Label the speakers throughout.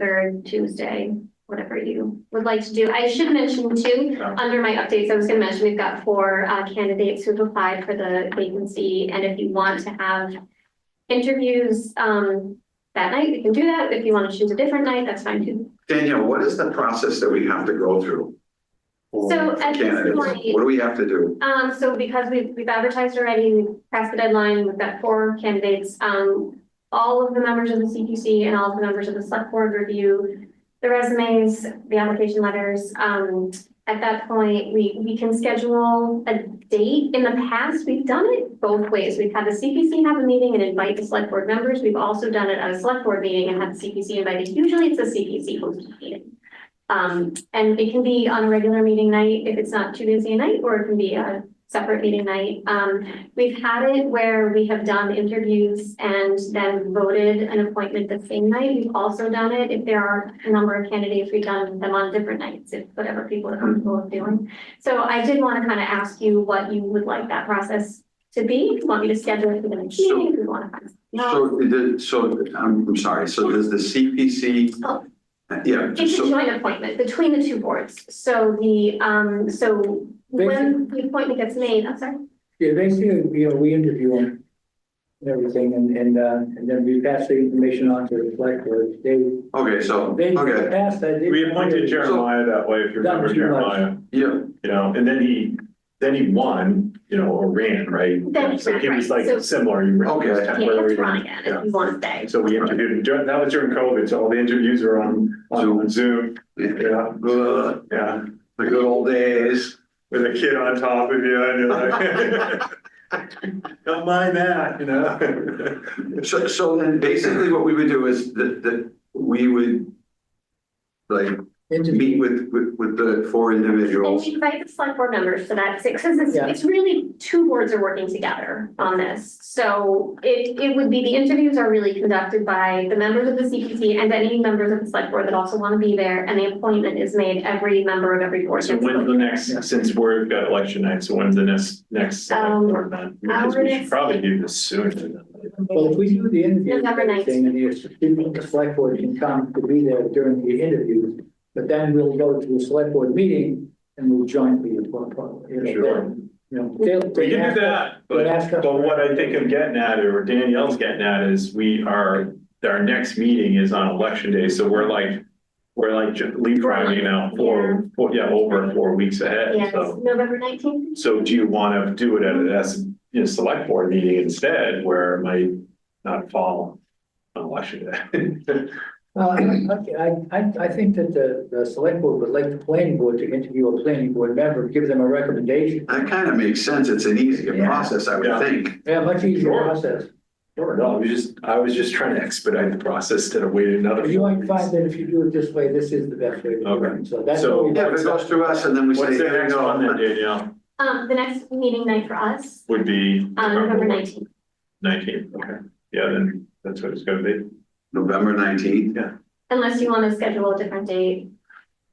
Speaker 1: third Tuesday, whatever you would like to do. I should mention too, under my updates, I was gonna mention, we've got four uh, candidates who've applied for the vacancy, and if you want to have interviews um, that night, we can do that. If you want to choose a different night, that's fine too.
Speaker 2: Danielle, what is the process that we have to go through?
Speaker 1: So at this
Speaker 2: Candidates,
Speaker 1: point,
Speaker 2: what do we have to do?
Speaker 1: Um, so because we've, we've advertised already, we passed the deadline, we've got four candidates, um. All of the members of the CPC and all of the members of the select board review the resumes, the application letters, um. At that point, we, we can schedule a date. In the past, we've done it both ways. We've had the CPC have a meeting and invite the select board members. We've also done it at a select board meeting and had the CPC invited. Usually it's a CPC hosted meeting. Um, and it can be on a regular meeting night if it's not too busy a night, or it can be a separate meeting night. Um, we've had it where we have done interviews and then voted an appointment the same night. We've also done it if there are a number of candidates, we've done them on different nights, if whatever people are comfortable with doing. So I did want to kind of ask you what you would like that process to be, if you want me to schedule it for the next
Speaker 2: So-
Speaker 1: meeting, if you want to. find-
Speaker 2: So, the- so, I'm, I'm sorry, so does the CPC?
Speaker 1: Oh.
Speaker 2: Yeah,
Speaker 1: It's a
Speaker 2: so,
Speaker 1: joint appointment between the two boards, so the, um, so when the appointment gets made, I'm sorry.
Speaker 3: Yeah, basically, you know, we interview them and everything, and, and, uh, and then we pass the information on to the select board. They,
Speaker 2: okay, so,
Speaker 3: they
Speaker 2: okay,
Speaker 3: pass that. they-
Speaker 4: We appointed Jeremiah that way, if you
Speaker 3: Done
Speaker 4: remember
Speaker 3: too much.
Speaker 4: Jeremiah,
Speaker 2: yeah,
Speaker 4: you know, and then he, then he won, you know, or ran, right?
Speaker 1: Then he
Speaker 4: So
Speaker 1: ran,
Speaker 4: he was
Speaker 1: right.
Speaker 4: like
Speaker 1: So-
Speaker 4: similar. you remember,
Speaker 2: Okay.
Speaker 4: it was
Speaker 1: Yeah,
Speaker 4: kind of
Speaker 1: you have to
Speaker 4: whether
Speaker 1: run
Speaker 4: he-
Speaker 1: again
Speaker 4: yeah.
Speaker 1: if you want to stay.
Speaker 4: So we interviewed him, during- that was during COVID, so all the interviews were on, on Zoom,
Speaker 2: yeah.
Speaker 4: yeah,
Speaker 2: Ugh,
Speaker 4: yeah,
Speaker 2: the good old days.
Speaker 4: with a kid on top of you, and you're like. Don't mind that, you know?
Speaker 2: So, so then basically what we would do is that, that we would like meet
Speaker 3: Interview.
Speaker 2: with, with, with the four
Speaker 1: And
Speaker 2: individuals.
Speaker 1: you invite the select board members to that, six, because it's,
Speaker 3: Yeah.
Speaker 1: it's really two boards are working together on this. So it, it would be, the interviews are really conducted by the members of the CPC and any members of the select board that also want to be there. And the appointment is made, every member of every board.
Speaker 4: So
Speaker 1: gets
Speaker 4: when's the
Speaker 1: appointed.
Speaker 4: next, since we've got election night, so when's the next, next? select
Speaker 1: Um,
Speaker 4: board then? Because
Speaker 1: our
Speaker 4: we
Speaker 1: next-
Speaker 4: should probably do this sooner than later.
Speaker 3: Well, if we do the interview. and
Speaker 1: November ninth.
Speaker 3: everything, And the, the select board can come to be there during the interviews, but then we'll go to a select board meeting and we'll jointly. appoint- you know,
Speaker 4: Sure.
Speaker 3: then, You know, they'll.
Speaker 4: We
Speaker 3: they
Speaker 4: can
Speaker 3: ask
Speaker 4: do
Speaker 3: us-
Speaker 4: that,
Speaker 3: they'll
Speaker 4: but,
Speaker 3: ask us-
Speaker 4: but what I think I'm getting at, or Danielle's getting at, is we are, our next meeting is on election day, so we're like, we're like ju- leapfrogging out four, four, yeah, over four weeks ahead,
Speaker 1: Yes,
Speaker 4: so.
Speaker 1: November nineteenth.
Speaker 4: So do you wanna do it at a, as, you know, select board meeting instead, where it might not fall on election day?
Speaker 3: Uh, I, I, I think that the, the select board would like the planning board to interview a planning board member, give them a recommendation.
Speaker 2: That kind of makes sense. It's an easier
Speaker 3: Yeah.
Speaker 2: process, I would
Speaker 4: Yeah.
Speaker 2: think.
Speaker 3: Yeah, much easier
Speaker 4: Sure.
Speaker 3: process.
Speaker 4: Or no, I was just, I was just trying to expedite the process instead of waiting another.
Speaker 3: But you
Speaker 4: four
Speaker 3: might
Speaker 4: weeks.
Speaker 3: find that if you do it this way, this is the best way to do
Speaker 4: Okay.
Speaker 3: it. So that's
Speaker 4: So-
Speaker 3: what we.
Speaker 2: Yeah, if it goes through us and then we say.
Speaker 4: What's the
Speaker 2: "Here we
Speaker 4: next
Speaker 2: go."
Speaker 4: one then, Danielle,
Speaker 1: Um, the next meeting night for us,
Speaker 4: would be?
Speaker 1: um, November nineteenth.
Speaker 4: Nineteen, okay, yeah, then that's what it's gonna be.
Speaker 2: November nineteenth.
Speaker 1: Unless you want to schedule a different date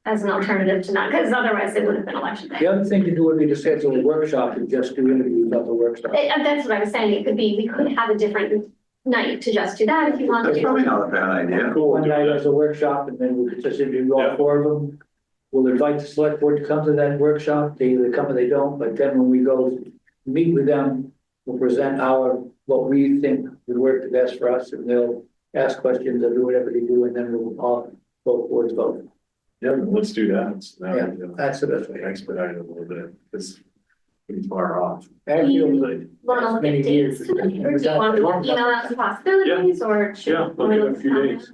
Speaker 1: as an alternative to not, because otherwise it would have been election day.
Speaker 3: The other thing to do would be to schedule a workshop and just do interviews at the workshop.
Speaker 1: Eh, eh, that's what I was saying, it could be, we could have a different night to just do that if you want
Speaker 2: That's
Speaker 1: to.
Speaker 2: probably not a bad idea.
Speaker 4: Cool,
Speaker 3: One
Speaker 4: do
Speaker 3: night
Speaker 4: that.
Speaker 3: as a workshop and then we'll just interview
Speaker 4: Yeah.
Speaker 3: all four of them. We'll invite the select board to come to that workshop. They either come or they don't, but then when we go meet with them, we'll present our, what we think would work the best for us and they'll ask questions or do whatever they do and then we'll all vote boards vote.
Speaker 4: Yeah, let's do that. So now we can
Speaker 3: That's the best way.
Speaker 4: Expedite it a little bit, it's pretty far off.
Speaker 3: Actually,
Speaker 4: Like,
Speaker 1: Want to look at
Speaker 3: Many
Speaker 1: dates,
Speaker 3: years.
Speaker 1: tonight, or do you want to email out some possibilities, or should?
Speaker 4: Yeah,
Speaker 1: we
Speaker 4: look
Speaker 1: look
Speaker 4: at a few
Speaker 1: at-
Speaker 4: days.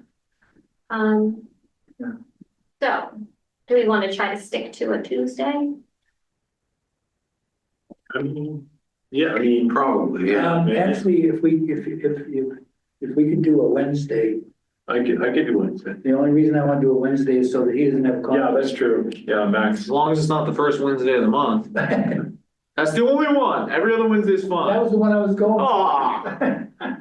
Speaker 1: Um.
Speaker 3: Yeah.
Speaker 1: So, do we want to try to stick to a Tuesday?
Speaker 4: I mean, yeah, I mean,
Speaker 2: Probably, yeah.
Speaker 3: um,
Speaker 4: maybe.
Speaker 3: actually, if we, if, if, if, if we could do a Wednesday,
Speaker 4: I could, I could do Wednesday.
Speaker 3: the only reason I want to do a Wednesday is so that he doesn't have.
Speaker 4: Yeah,
Speaker 3: conflict.
Speaker 4: that's true. Yeah, Max.
Speaker 5: As long as it's not the first Wednesday of the month.
Speaker 3: That
Speaker 5: That's the only one. Every other Wednesday is fine.
Speaker 3: was the one I was going. for.
Speaker 5: Aw.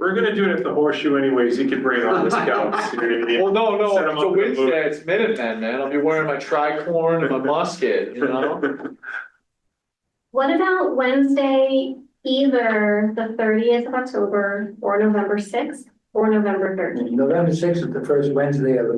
Speaker 4: We're gonna do it at the horseshoe anyways. He could bring on the scouts. you know what I mean?
Speaker 5: Well, no, no,
Speaker 4: Set 'em
Speaker 5: it's a
Speaker 4: up in the booth.
Speaker 5: Wednesday, it's Minutemen, man. I'll be wearing my tricorn and my musket, you know?
Speaker 1: What about Wednesday, either the thirtieth of October or November sixth? or November thirteenth.
Speaker 3: November sixth is the first Wednesday of the